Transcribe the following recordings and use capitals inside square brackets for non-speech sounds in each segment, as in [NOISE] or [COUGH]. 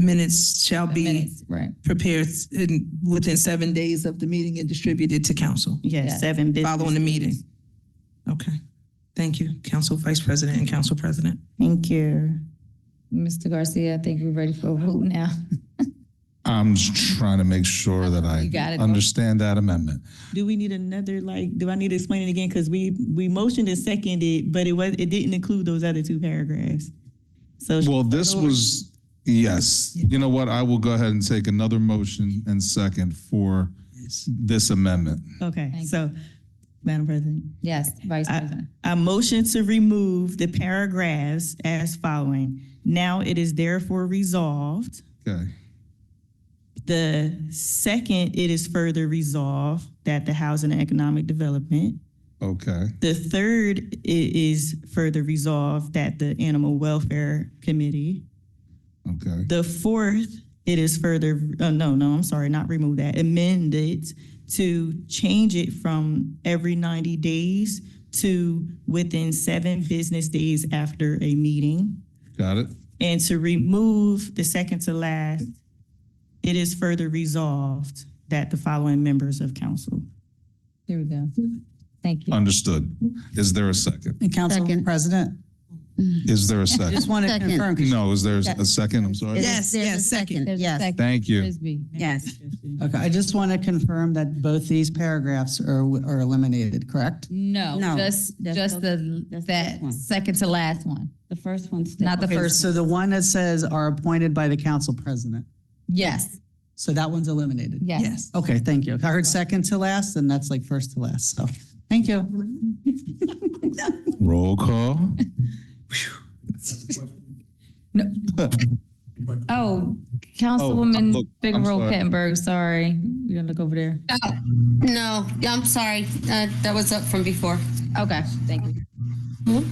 Minutes shall be Minutes, Right, prepared in, within seven days of the meeting and distributed to council Yes. Yes, seven business. following the meeting. Okay. Thank you, Council Vice President and Council President. Thank you. Mr. Garcia, I think we're ready for a vote now. [LAUGHS] I'm just trying to make sure that I You got it. understand that amendment. Do we need another, like, do I need to explain it again? Because we, we motioned and seconded, but it was, it didn't include those other two paragraphs. So, Well, this was, yes, you know what, I will go ahead and take another motion and second for this amendment. okay, Thank so, Madam President, Yes, Vice President. I motion to remove the paragraphs as following. Now it is therefore resolved. Okay, The second, it is further resolved that the Housing and Economic Development okay, The third i- is further resolved that the Animal Welfare Committee. okay, The fourth, it is further, oh, no, no, I'm sorry, not remove that, amend it to change it from every 90 days to within seven business days after a meeting. got it? And to remove the second to last, it is further resolved that the following members of council. There we go. Thank you. Understood. Is there a second? And Council Second. President, Is there a I second? Mm-hmm. just want to Second. confirm, 'cause- No, is there a second? I'm sorry. Yes, There's a yes, second, There's a yes. second. Thank you. Frisbee. Yes. okay, I just want to confirm that both these paragraphs are, are eliminated, correct? No, No, just, that's just the, that's the first that one. second to last one. The first one's. Not the Okay, first. So the one that says are appointed by the council president, Yes, so that one's eliminated? yes. Okay, thank you. If I heard second to last, then that's like first to last, so, thank you. Roll call. Oh, look, Councilwoman Big Oh, I'm Roll sorry. Kettenberg, sorry. You gonna look over there? No, yeah, I'm sorry. Uh, that was up from before. Okay, thank you.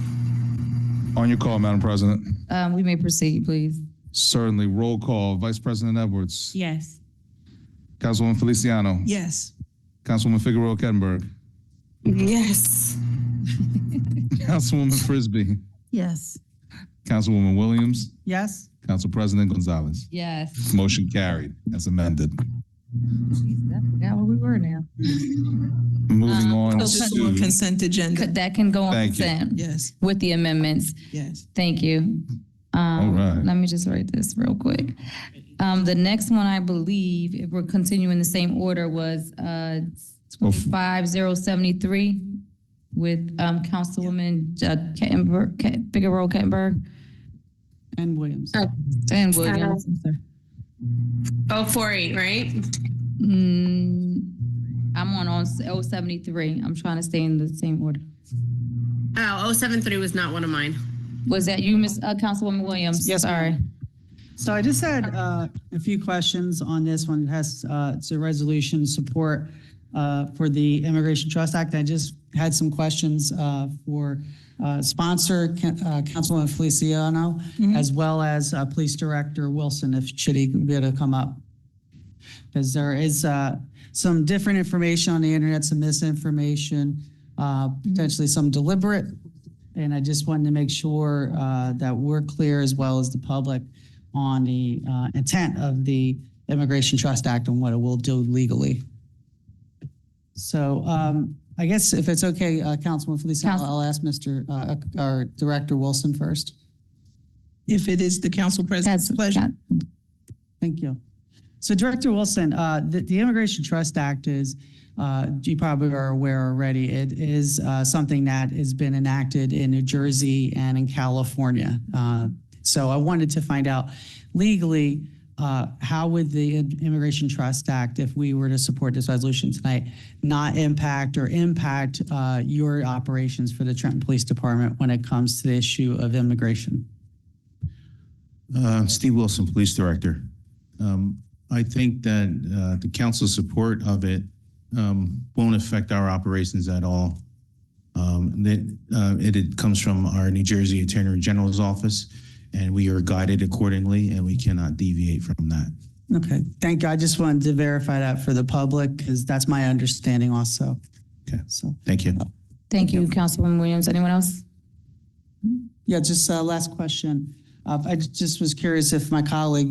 On your call, Madam President. Um, we may proceed, please. Certainly, roll call. Vice President Edwards. Yes. Councilwoman Feliciano. Yes. Councilwoman Figueroa [LAUGHS] Kettenberg. Yes. Councilwoman Frisbee. Yes. Councilwoman Williams. Yes? Council President Gonzalez. Yes. Motion carried as amended. Yeah, where we were now. Moving on Just on to, consent agenda. Could, that can go on Thank you. consent Yes, with the amendments. yes. Thank you. Um, right. Let me just write this real quick. Um, the next one, I believe, if we're continuing the same order, was, uh, Oh, f- twenty-five zero seventy-three with, um, Councilwoman, uh, Kettenberg, Ket- Big Roll Kettenberg And Williams? and Williams. I'm sorry. Oh, four eight, right? Mm, I'm on on oh seventy three. I'm trying to stay in the same order. Oh, 073 was not one of mine. Was that you, Miss uh, Councilwoman Williams? Yes, Sorry. So I just had uh, a few questions on this one. It has, uh, it's a resolution support uh, for the Immigration Trust Act. I just had some questions uh, for uh, sponsor, Ca- uh, Councilwoman Feliciano, as well as uh, Police Director Wilson, if should he be able to come up because there is uh, some different information on the internet, some misinformation, uh, potentially some deliberate. And I just wanted to make sure uh, that we're clear as well as the public on the uh, intent of the Immigration Trust Act and what it will do legally. So um, I guess if it's okay, uh, Councilman Feliciano, Council- I'll ask Mr., uh, our Director Wilson first. If it is the council president's That's pleasure. Thank you. So Director Wilson, uh, the the Immigration Trust Act is, uh, you probably are aware already, it is uh, something that has been enacted in New Jersey and in California. Uh, So I wanted to find out legally, uh, how would the Immigration Trust Act, if we were to support this resolution tonight, not impact or impact uh, your operations for the Trenton Police Department when it comes to the issue of immigration? Uh, Steve Wilson, Police Director. Um, I think that uh, the council's support of it um, won't affect our operations at all. Um, that, uh, It it comes from our New Jersey Attorney General's office, and we are guided accordingly, and we cannot deviate from that. Okay, thank you. I just wanted to verify that for the public because that's my understanding also. Okay. So, Thank you. Thank you, Councilwoman Williams. Anyone else? yeah, just uh last question. Uh, I just was curious if my colleague